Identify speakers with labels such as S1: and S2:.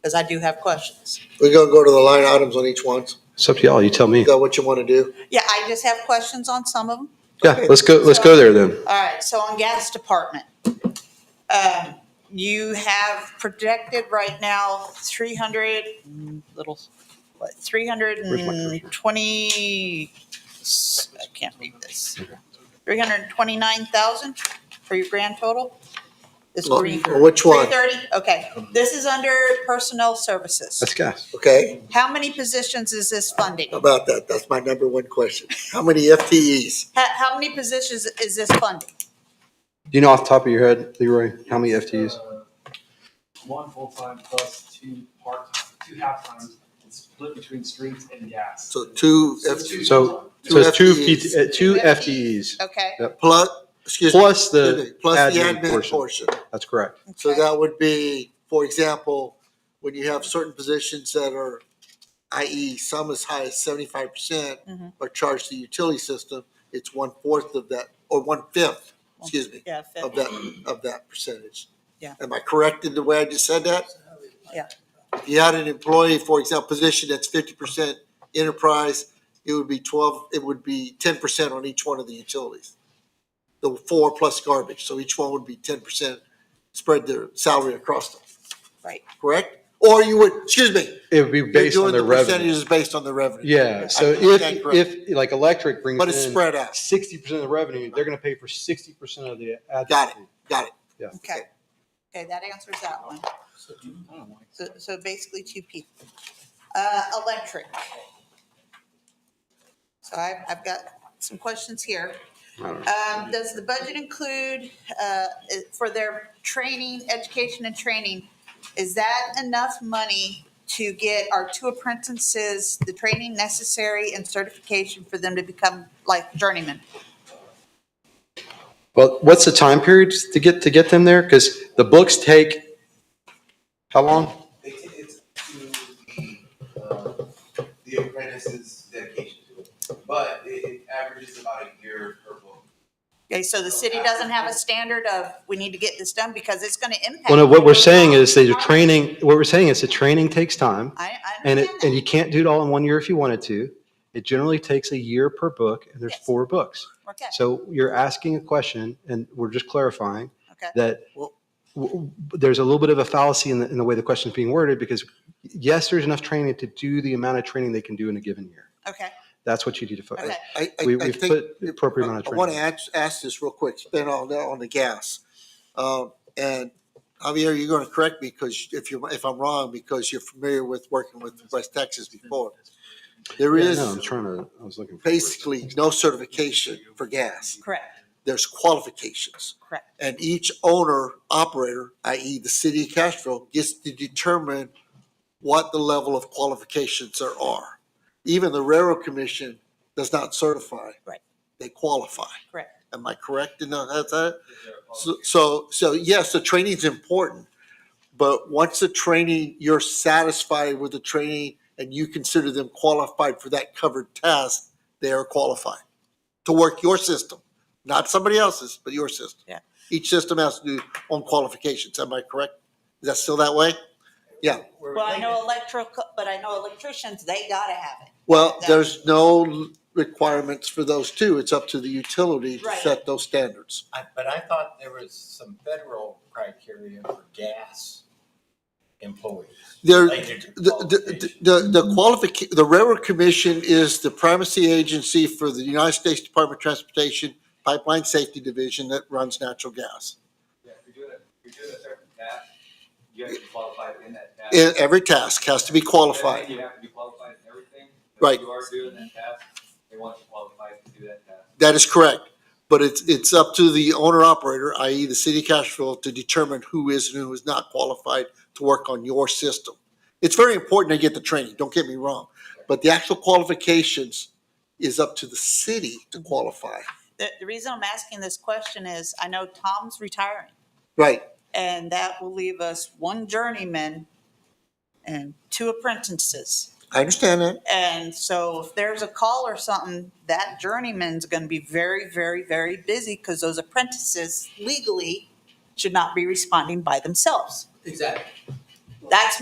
S1: because I do have questions.
S2: We're gonna go to the line items on each one.
S3: It's up to y'all. You tell me.
S2: You got what you want to do?
S1: Yeah, I just have questions on some of them.
S3: Yeah, let's go, let's go there then.
S1: All right, so on gas department, um, you have projected right now three hundred little, what, three hundred and twenty, I can't read this. Three hundred and twenty-nine thousand for your grand total? This
S2: Well,
S1: green.
S2: which one?
S1: Three thirty, okay. This is under personnel services.
S3: That's gas.
S2: Okay,
S1: How many positions is this funding?
S2: How about that, that's my number one question. How many FTEs?
S1: How, how many positions is this funding?
S3: Do you know off the top of your head, Leroy, how many FTEs?
S4: Uh, One full-time plus two part-time, two half-times, it's split between streets and gas.
S2: So two
S4: So
S2: FTEs
S4: two-
S3: So, so it's two,
S2: Two
S3: PT uh, two FTEs.
S1: Okay,
S2: plus, excuse me.
S3: Plus the
S2: excuse me, Plus the
S3: admin
S2: admin
S3: portion.
S2: portion.
S3: That's correct.
S2: So
S1: Okay.
S2: that would be, for example, when you have certain positions that are, i.e. some as high as seventy-five percent
S1: Mhm.
S2: are charged to the utility system, it's one-fourth of that, or one-fifth, excuse me,
S1: yeah,
S2: of that, of that percentage.
S1: Yeah.
S2: Am I correct in the way I just said that?
S1: Yeah.
S2: If you had an employee, for example, position that's fifty percent enterprise, it would be twelve, it would be ten percent on each one of the utilities. The four plus garbage, so each one would be ten percent, spread their salary across them,
S1: right.
S2: correct? Or you would, excuse me,
S3: It would be
S2: you're
S3: based on
S2: doing
S3: their
S2: the
S3: revenue.
S2: percentages based on the revenue.
S3: Yeah, so
S2: I
S3: if,
S2: think that's
S3: if, like electric brings
S2: But it's
S3: in
S2: spread out,
S3: sixty percent of the revenue, they're gonna pay for sixty percent of the admin.
S2: Got
S3: fee.
S2: got it,
S1: Okay, okay, that answers that one.
S4: So two- I don't know, like,
S1: So, so basically two people. Uh, electric. So I've, I've got some questions here.
S3: I don't know.
S1: Um, does the budget include, uh, i- for their training, education and training? Is that enough money to get our two apprentices the training necessary and certification for them to become like journeymen?
S3: Well, what's the time period to get, to get them there? Because the books take, how long?
S5: They take it to the, uh, the apprentice's dedication to it, but it, it averages about a year per book.
S1: Okay, so the city doesn't have a standard of, we need to get this done because it's gonna impact.
S3: Well, no, what we're saying is that your training, what we're saying is the training takes time.
S1: I, I
S3: And it, and
S1: understand
S3: you can't do it all in one year if you wanted to. It generally takes a year per book and there's
S1: Yes.
S3: four books.
S1: that. Okay,
S3: So you're asking a question and we're just clarifying
S1: okay.
S3: that
S2: Well-
S3: w- w- there's a little bit of a fallacy in the, in the way the question's being worded because yes, there's enough training to do the amount of training they can do in a given year.
S1: Okay,
S3: That's what you need to
S1: okay.
S3: focus.
S2: I, I,
S3: We,
S2: I
S3: we've
S2: think.
S3: put the appropriate amount of
S2: I
S3: training.
S2: want to ask, ask this real quick, spin on, that- on the gas. Um, And Javier, you're going to correct me because if you're, if I'm wrong, because you're familiar with working with West Texas before. There
S3: Yeah,
S2: is
S3: no, I'm trying to, I was looking. for words.
S2: basically no certification for gas.
S1: Correct,
S2: There's qualifications.
S1: correct.
S2: And each owner operator, i.e. the city of Castro, gets to determine what the level of qualifications there are. Even the railroad commission does not certify.
S1: Right.
S2: They qualify.
S1: Correct.
S2: Am I correct in that? that-
S4: if they're all-
S2: So- So, so yes, the training's important, but once the training, you're satisfied with the training and you consider them qualified for that covered task, they are qualified to work your system, not somebody else's, but your system.
S1: Yeah.
S2: Each system has to do own qualifications. Am I correct? Is that still that way? Yeah.
S4: We're
S1: Well, I
S4: thinking-
S1: know electrical, but I know electricians, they gotta have it.
S2: Well,
S1: Yeah.
S2: there's no requirements for those two. It's up to the utility to
S1: Right.
S2: set those standards.
S6: I, but I thought there was some federal criteria for gas employees.
S2: There,
S6: related to
S2: The,
S6: qualification.
S2: the, the qualific, the Railroad Commission is the primacy agency for the United States Department of Transportation Pipeline Safety Division that runs natural gas.
S4: Yeah, if you're doing it, if you're doing a certain task, you have to be qualified in that task.
S2: E- Every task has to be qualified.
S4: Everything, You have to be qualified in everything. If
S2: Right.
S4: You are doing that task, they want you qualified to do that task.
S2: That is correct. But it's, it's up to the owner operator, i.e. the city of Castroville, to determine who is and who is not qualified to work on your system. It's very important to get the training, don't get me wrong, but the actual qualifications is up to the city to qualify.
S1: The, the reason I'm asking this question is I know Tom's retiring
S2: Right.
S1: and that will leave us one journeyman and two apprentices.
S2: I understand that.
S1: And so if there's a call or something, that journeyman's gonna be very, very, very busy because those apprentices legally should not be responding by themselves.
S6: Exactly.
S1: That's